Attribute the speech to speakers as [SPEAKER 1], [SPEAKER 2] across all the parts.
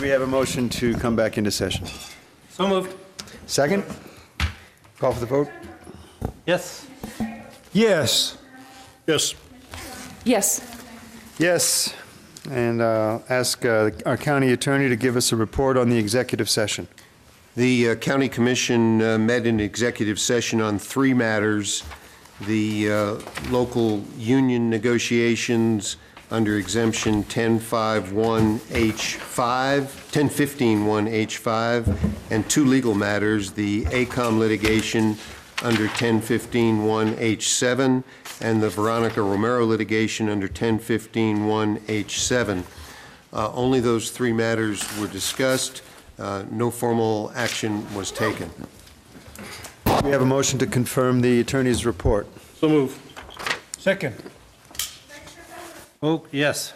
[SPEAKER 1] we have a motion to come back into session?
[SPEAKER 2] So moved.
[SPEAKER 1] Second? Call for the vote?
[SPEAKER 2] Yes.
[SPEAKER 3] Yes.
[SPEAKER 4] Yes.
[SPEAKER 5] Yes.
[SPEAKER 1] Yes. And uh, ask uh, our county attorney to give us a report on the executive session.
[SPEAKER 4] The uh, county commission uh, met in executive session on three matters. The uh, local union negotiations under exemption 1051H5, 1015-1H5, and two legal matters, the ACOM litigation under 1015-1H7 and the Veronica Romero litigation under 1015-1H7. Uh, Only those three matters were discussed. Uh, No formal action was taken.
[SPEAKER 1] We have a motion to confirm the attorney's report.
[SPEAKER 2] So moved.
[SPEAKER 3] Second.
[SPEAKER 2] Oh, yes.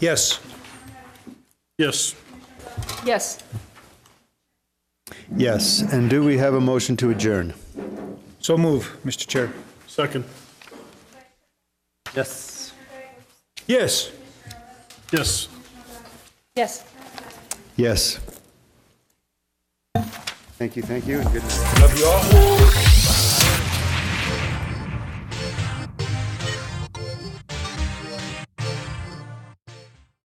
[SPEAKER 3] Yes.
[SPEAKER 2] Yes.
[SPEAKER 5] Yes.
[SPEAKER 1] Yes. And do we have a motion to adjourn?
[SPEAKER 3] So move, Mr. Chair.
[SPEAKER 2] Second. Yes.
[SPEAKER 3] Yes.
[SPEAKER 2] Yes.
[SPEAKER 5] Yes.
[SPEAKER 1] Yes. Thank you, thank you, and good night.
[SPEAKER 3] Love you all.